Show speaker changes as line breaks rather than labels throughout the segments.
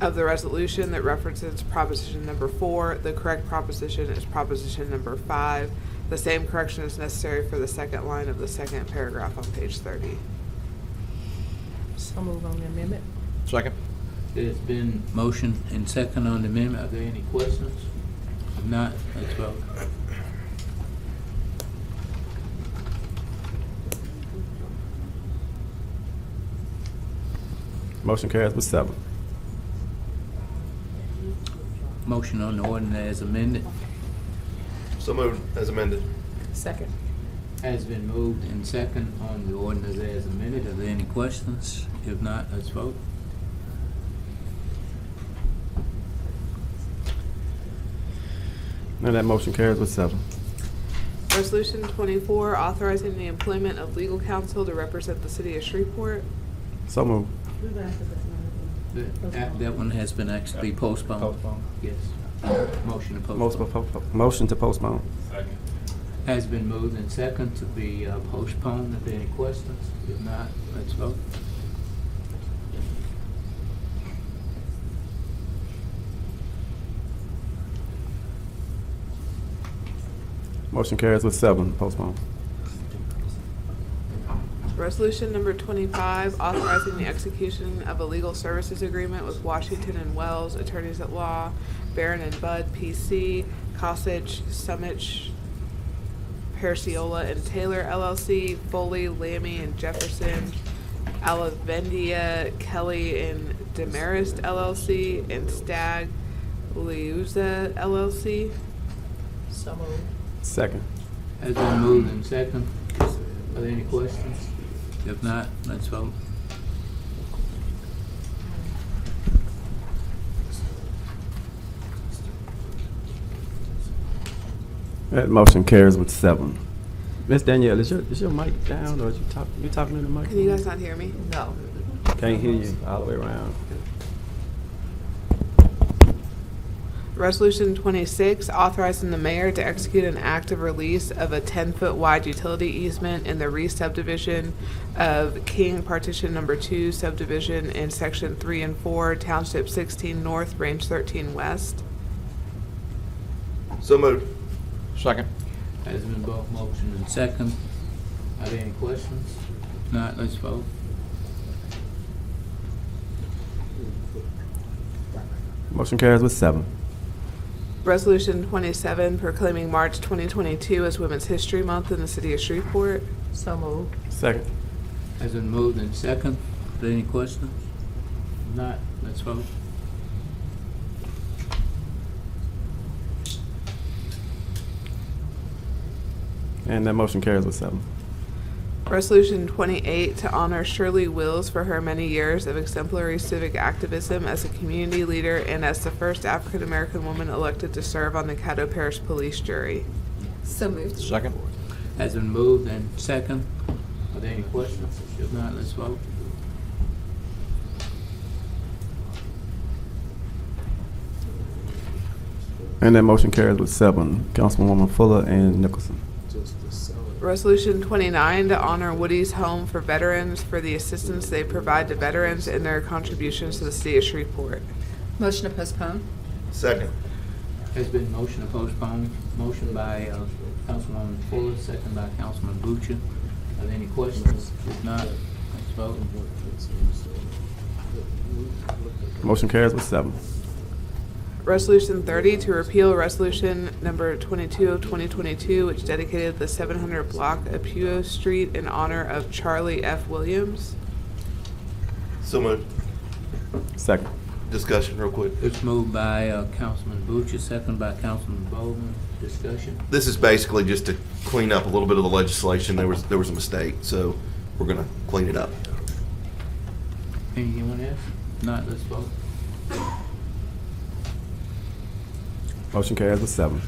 of the resolution that references proposition number four. The correct proposition is proposition number five. The same correction is necessary for the second line of the second paragraph on page thirty.
I'll move on the amendment.
Second.
There's been motion and second on the amendment. Are there any questions? If not, let's vote.
Motion carries with seven.
Motion on the ordinance as amended
So moved as amended.
Second.
has been moved and second on the ordinance as amended. Are there any questions? If not, let's vote.
And that motion carries with seven.
Resolution twenty-four, authorizing the employment of legal counsel to represent the city of Shreveport.
So moved.
That that- that one has been actually postponed.
Postponed.
Yes. Motion to
Most-
postpone.
po- po- Motion to postpone.
Has been moved and second to be uh, postponed. Are there any questions? If not, let's vote.
Motion carries with seven, postpone.
Resolution number twenty-five, authorizing the execution of a legal services agreement with Washington and Wells Attorneys at Law, Barron and Bud, P.C., Cossage, Summich, Perciola and Taylor LLC, Foley, Lammy and Jefferson, Alavendia, Kelly and Demarest LLC, and Stagg, Liuza LLC.
So moved.
Second.
Has been moved and second. Are there any questions? If not, let's vote.
That motion carries with seven. Miss Danielle, is your, is your mic down or is you talk, you talking in the mic?
Can you guys not hear me?
No.
Can't hear you all the way around.
Resolution 26, authorizing the mayor to execute an act of release of a 10-foot wide utility easement in the re-subdivision of King Partition Number 2 subdivision in Section 3 and 4, Township 16 North, Range 13 West.
So moved.
Second.
Has been both motion and second. Are there any questions? If not, let's vote.
Motion carries with seven.
Resolution 27, proclaiming March 2022 as Women's History Month in the city of Shreveport.
So moved.
Second.
Has been moved and second. Are there any questions? If not, let's vote.
And that motion carries with seven.
Resolution 28, to honor Shirley Wills for her many years of exemplary civic activism as a community leader and as the first African-American woman elected to serve on the Caddo Parish Police Jury.
So moved.
Second.
Has been moved and second. Are there any questions? If not, let's vote.
And that motion carries with seven. Councilwoman Fuller and Nicholson.
Resolution 29, to honor Woody's Home for Veterans for the assistance they provide to veterans and their contributions to the city of Shreveport.
Motion to postpone?
Second.
Has been motion to postpone, motion by uh, Councilwoman Fuller, second by Councilman Bucci. Are there any questions? If not, let's vote.
Motion carries with seven.
Resolution 30, to repeal Resolution Number 22 of 2022, which dedicated the 700 block of Puyo Street in honor of Charlie F. Williams.
So moved.
Second.
Discussion real quick.
It's moved by uh, Councilman Bucci, second by Councilman Bowman. Discussion.
This is basically just to clean up a little bit of the legislation. There was, there was a mistake, so we're gonna clean it up.
Anyone else? If Not, let's vote.
Motion carries with seven.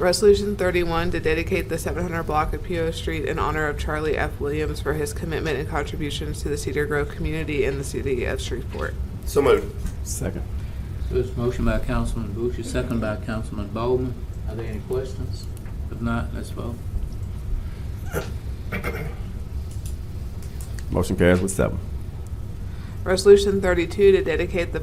Resolution 31 to dedicate the 700 block of PO Street in honor of Charlie F. Williams for his commitment and contributions to the Cedar Grove community and the city of Shreveport.
So moved.
Second.
There's motion by Councilman Bucci, second by Councilman Bowman. Are there any questions? If not, let's vote.
Motion carries with seven.
Resolution 32 to dedicate the